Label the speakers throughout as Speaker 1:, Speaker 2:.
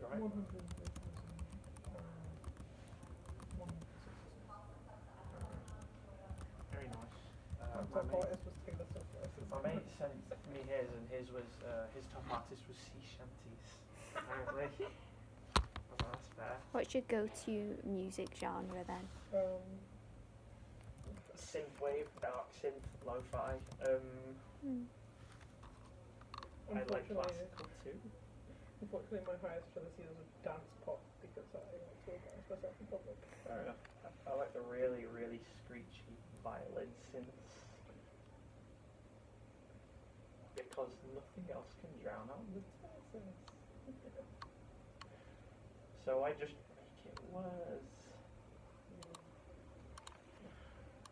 Speaker 1: that right? Very nice. Uh, my mate, my mate sent me his, and his was uh, his top artist was sea shanties. Apparently, I was like, that's fair.
Speaker 2: What's your go-to music genre then?
Speaker 3: Um,
Speaker 1: Synthwave, dark synth, lo-fi. Um,
Speaker 2: Hmm.
Speaker 1: I like
Speaker 3: Unfortunately,
Speaker 1: classical too.
Speaker 3: Unfortunately, my highest for this year was dance pop because I like to embarrass myself in public.
Speaker 1: Fair enough. I, I like the really, really screechy violin synths. Because nothing else can drown out the presence. So I just make it worse.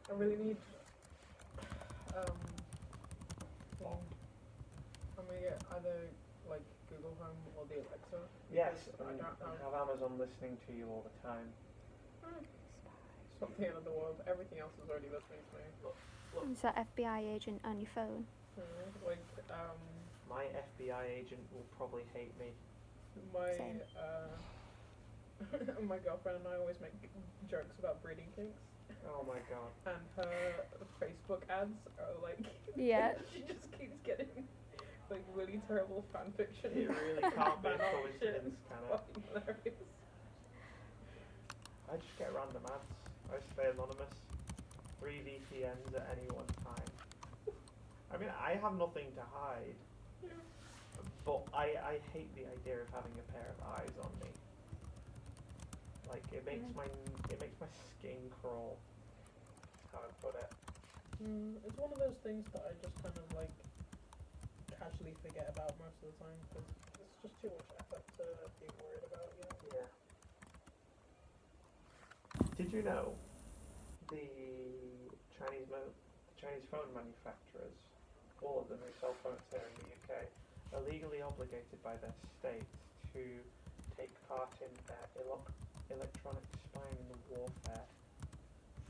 Speaker 3: I really need. Um, well, I'm gonna get either like Google Home or the Alexa.
Speaker 1: Yes,
Speaker 3: because I
Speaker 1: and,
Speaker 3: don't
Speaker 1: and have
Speaker 3: have
Speaker 1: Amazon listening to you all the time.
Speaker 3: it's not the end of the world. Everything else is already listening to me.
Speaker 2: Is that FBI agent on your phone?
Speaker 3: Mhm, Like um,
Speaker 1: My FBI agent will probably hate me.
Speaker 3: my
Speaker 2: Same.
Speaker 3: uh, my girlfriend and I always make jokes about breeding kinks,
Speaker 1: Oh my god.
Speaker 3: and her Facebook ads are like
Speaker 2: Yeah.
Speaker 3: she just keeps getting like really terrible fan fiction.
Speaker 1: It really can't be a
Speaker 3: Banal
Speaker 1: coincidence, can it?
Speaker 3: Fucking hilarious.
Speaker 1: I just get random ads. I stay anonymous. Three VPNs at any one time. I mean, I have nothing to hide,
Speaker 3: Yeah.
Speaker 1: but I, I hate the idea of having a pair of eyes on me. Like it makes my it makes my skin crawl. How I put it.
Speaker 3: Mm, it's one of those things that I just kind of like casually forget about most of the time because it's just too much effort to be worried about. You know?
Speaker 1: Yeah. Did you know the Chinese mo- the Chinese phone manufacturers, all of them who sell phones here in the UK, are legally obligated by their state to take part in their elo- electronic spying and warfare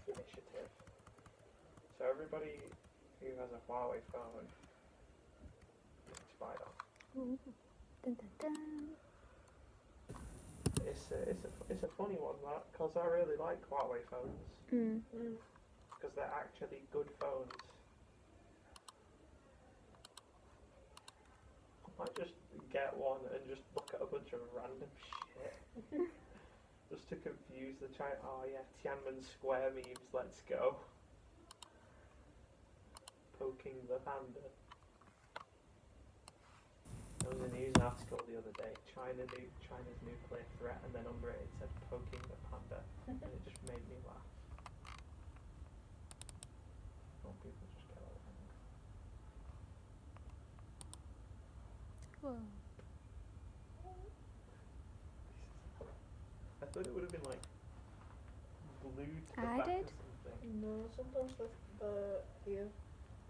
Speaker 1: initiative. So everybody who has a Huawei phone is spied on.
Speaker 2: Ooh. Dun, dun, dun.
Speaker 1: It's a, it's a, it's a funny one that, because I really like Huawei phones,
Speaker 2: Mm.
Speaker 3: Mm.
Speaker 1: because they're actually good phones. I might just get one and just look at a bunch of random shit. just to confuse the China. Oh yeah, Tiananmen Square memes, let's go. Poking the panda. There was a news article the other day, China nu- China's nuclear threat, and then under it it said poking the panda, and it just made me laugh. Oh, people just get along.
Speaker 2: Whoa.
Speaker 1: I thought it would have been like glued to the
Speaker 2: I
Speaker 1: back
Speaker 2: did.
Speaker 1: or something.
Speaker 3: No, sometimes the the here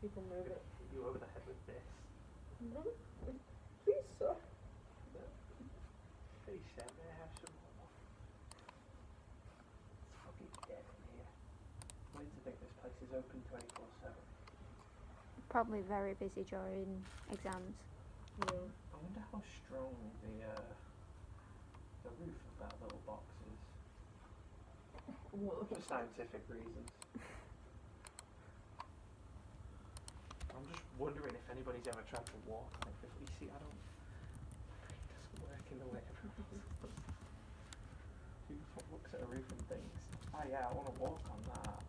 Speaker 3: people move
Speaker 1: Gonna
Speaker 3: it.
Speaker 1: hit You over the head with this.
Speaker 3: No, please sir.
Speaker 1: Hey Sam, may I have some more? It's fucking dead in here. Why do you think this place is open 24 7?
Speaker 2: Probably very busy during exams.
Speaker 3: No.
Speaker 1: I wonder how strong the uh, the roof of that little box is.
Speaker 3: Well,
Speaker 1: For scientific reasons. I'm just wondering if anybody's ever tried to walk like this. You see, I don't. It doesn't work in the way everyone else does. Who the fuck looks at a roof and thinks, oh yeah, I want to walk on that?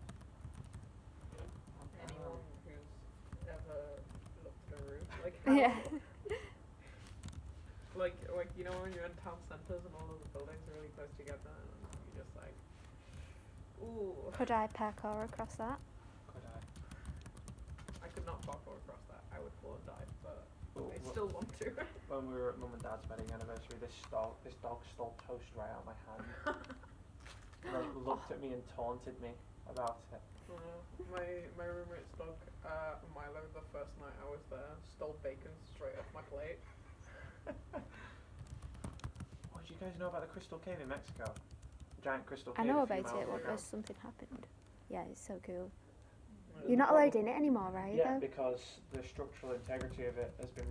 Speaker 3: anyone who's ever looked at a roof, like
Speaker 2: Yeah.
Speaker 3: like like you know when you're in town centers and all of the buildings are really close together, and you're just like, ooh,
Speaker 2: Could I parkour across that?
Speaker 1: Could I?
Speaker 3: I could not parkour across that. I would fall and die, but
Speaker 1: Well,
Speaker 3: I
Speaker 1: wh-
Speaker 3: still want to.
Speaker 1: When we were at mum and dad's wedding anniversary, this dog, this dog stole toast right out of my hand. and then looked at me and taunted me about it.
Speaker 3: Uh, my my roommate's dog, uh, Milo, the first night I was there, stole bacon straight off my plate.
Speaker 1: What do you guys know about the Crystal Cave in Mexico? Giant Crystal
Speaker 2: I
Speaker 1: Cave.
Speaker 2: know
Speaker 1: a few
Speaker 2: about it.
Speaker 1: miles
Speaker 2: What
Speaker 1: ago.
Speaker 2: was something happened? Yeah, it's so cool.
Speaker 3: Uh,
Speaker 2: You're not allowed in it anymore, right?
Speaker 1: Yeah,
Speaker 2: though?
Speaker 1: because the structural integrity of it has been